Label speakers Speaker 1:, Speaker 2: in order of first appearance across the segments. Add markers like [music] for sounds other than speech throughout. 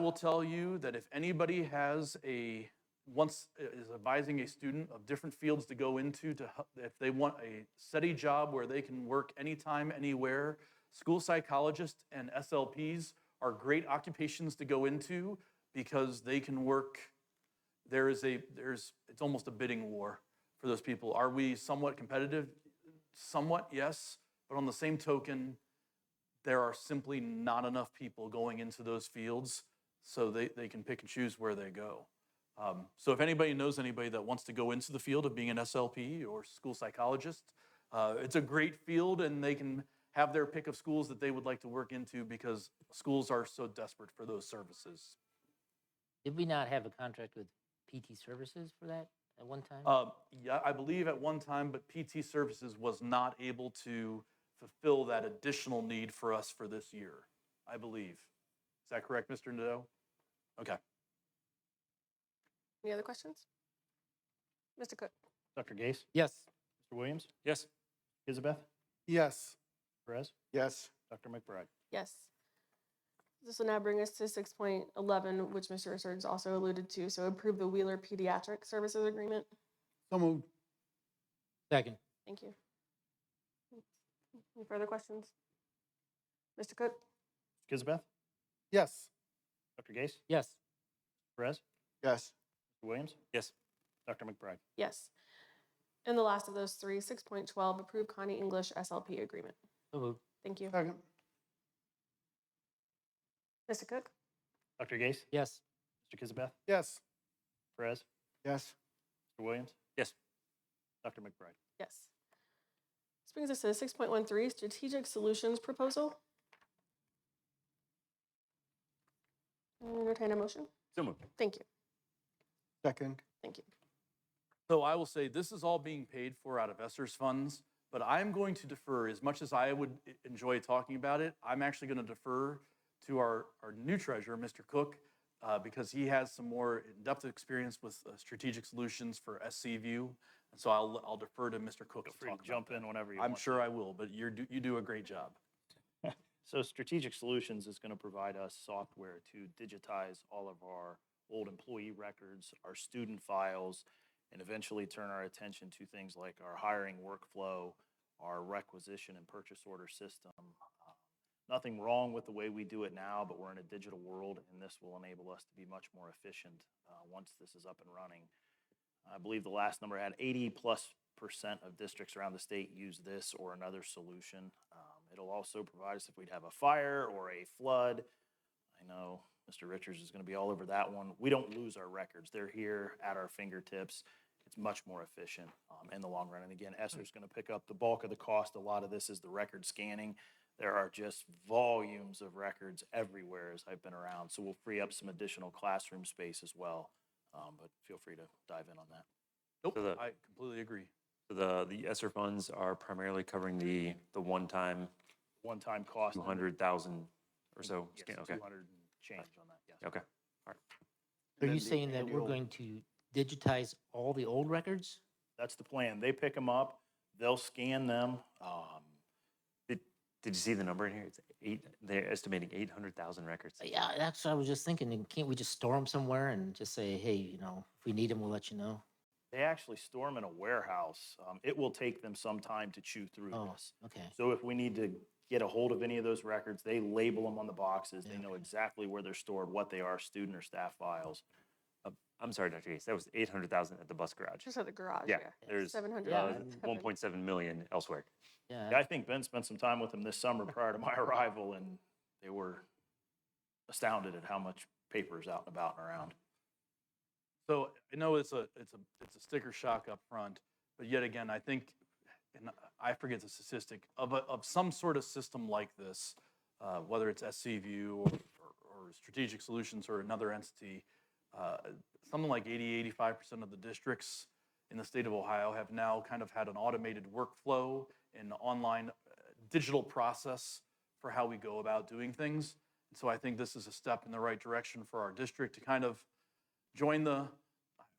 Speaker 1: will tell you that if anybody has a, once is advising a student of different fields to go into, to hel- if they want a steady job where they can work anytime, anywhere, school psychologists and SLPs are great occupations to go into because they can work. There is a there's it's almost a bidding war for those people. Are we somewhat competitive? Somewhat, yes. But on the same token, there are simply not enough people going into those fields so they, they can pick and choose where they go. Um, so if anybody knows anybody that wants to go into the field of being an SLP or school psychologist, uh, it's a great field and they can have their pick of schools that they would like to work into because schools are so desperate for those services.
Speaker 2: Did we not have a contract with PT Services for that at one time?
Speaker 1: Uh, yeah, I believe at one time, but PT Services was not able to fulfill that additional need for us for this year, I believe. Is that correct, Mr. Nadeau? Okay.
Speaker 3: Any other questions? Mr. Cook?
Speaker 4: Dr. Gase,
Speaker 2: Yes.
Speaker 4: Mr. Williams,
Speaker 1: Yes.
Speaker 4: Kizabeth,
Speaker 5: Yes.
Speaker 4: Perez,
Speaker 5: Yes.
Speaker 4: Dr. McBride.
Speaker 3: Yes. This will now bring us to six point eleven, which Mr. Richards also alluded to, so approve the Wheeler Pediatric Services Agreement.
Speaker 5: So moved.
Speaker 2: Second.
Speaker 3: Thank you. Any further questions? Mr. Cook?
Speaker 4: Kizabeth,
Speaker 5: Yes.
Speaker 4: Dr. Gase,
Speaker 2: Yes.
Speaker 4: Perez,
Speaker 5: Yes.
Speaker 4: Mr. Williams.
Speaker 1: Yes.
Speaker 4: Dr. McBride.
Speaker 3: Yes. And the last of those three, six point twelve, approve Connie English SLP Agreement.
Speaker 2: So
Speaker 5: Oh,
Speaker 2: moved.
Speaker 3: Thank you.
Speaker 5: Second.
Speaker 3: Mr. Cook?
Speaker 4: Dr. Gase,
Speaker 2: Yes.
Speaker 4: Mr. Kizabeth,
Speaker 5: Yes.
Speaker 4: Perez,
Speaker 5: Yes.
Speaker 4: Mr. Williams.
Speaker 1: Yes.
Speaker 4: Dr. McBride.
Speaker 3: Yes. This brings us to six point one three, strategic solutions proposal. Entertain a motion?
Speaker 4: So moved.
Speaker 3: Thank you,
Speaker 5: Second.
Speaker 3: thank you.
Speaker 1: So I will say this is all being paid for out of Esser's funds, but I'm going to defer, as much as I would e- enjoy talking about it, I'm actually going to defer to our, our new treasurer, Mr. Cook, uh, because he has some more in-depth experience with uh, strategic solutions for SCView. And so I'll, I'll defer to Mr. Cook
Speaker 4: Feel
Speaker 1: to
Speaker 4: free
Speaker 1: talk about
Speaker 4: to jump
Speaker 1: that.
Speaker 4: in whenever you
Speaker 1: I'm
Speaker 4: want.
Speaker 1: sure I will, but you're, do- you do a great job.
Speaker 4: So Strategic Solutions is going to provide us software to digitize all of our old employee records, our student files, and eventually turn our attention to things like our hiring workflow, our requisition and purchase order system. Uh, Nothing wrong with the way we do it now, but we're in a digital world, and this will enable us to be much more efficient uh, once this is up and running. I believe the last number had 80 plus percent of districts around the state use this or another solution. Um, it'll also provide us if we'd have a fire or a flood. I know Mr. Richards is going to be all over that one. We don't lose our records, they're here at our fingertips. It's much more efficient um, in the long run. And again, Esser's going to pick up the bulk of the cost. A lot of this is the record scanning. There are just volumes of records everywhere as I've been around. So we'll free up some additional classroom space as well. Um, but feel free to dive in on that.
Speaker 1: Nope,
Speaker 6: So the-
Speaker 1: I completely agree.
Speaker 6: The, the ESSER funds are primarily covering the, the one-time
Speaker 4: one-time cost. and then-
Speaker 6: 200,000 or so.
Speaker 4: Yes,
Speaker 6: scan- Okay,
Speaker 4: 200 and change on that, yes.
Speaker 6: okay.
Speaker 2: Are
Speaker 5: Then
Speaker 2: you
Speaker 5: the
Speaker 2: saying that we're
Speaker 5: annual-
Speaker 2: going to digitize all the old records?
Speaker 4: That's the plan. They pick them up, they'll scan them. um,
Speaker 6: Did you see the number in here? It's eight, they're estimating 800,000 records.
Speaker 2: Uh, Yeah, that's what I was just thinking. and Can't we just store them somewhere and just say, hey, you know, if we need them, we'll let you know?
Speaker 4: They actually store them in a warehouse. Um, It will take them some time to chew through
Speaker 2: Oh.
Speaker 4: this.
Speaker 2: Okay.
Speaker 4: So if we need to get a hold of any of those records, they label them on the boxes. They
Speaker 2: Yeah,
Speaker 4: know
Speaker 2: okay.
Speaker 4: exactly where they're stored, what they are, student or staff files.
Speaker 6: I'm sorry, Dr. Gates, that was 800,000 at the bus garage.
Speaker 3: Just at the garage, yeah.
Speaker 6: Yeah, there's uh,
Speaker 3: Seven hundred.
Speaker 2: Yeah,
Speaker 6: one point seven million elsewhere.
Speaker 2: Yeah.
Speaker 4: Yeah, I think Ben spent some time with them this summer prior to my [laughs] arrival, and they were astounded at how much paper is out and about and around.
Speaker 1: So I know it's a it's a it's a sticker shock up front, but yet again, I think, and I forget the statistic of a, of some sort of system like this, uh, whether it's SCView or, or, or Strategic Solutions or another entity, uh, something like 80 85 percent of the districts in the state of Ohio have now kind of had an automated workflow and online uh, digital process for how we go about doing things. So I think this is a step in the right direction for our district to kind of join the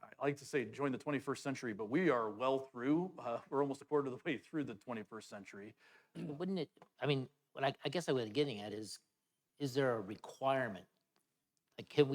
Speaker 1: I- I like to say join the 21st century, but we are well through. Uh, we're almost a quarter of the way through the 21st century.
Speaker 2: But Wouldn't it, I mean, what I, I guess I was getting at is, is there a requirement Like, can we?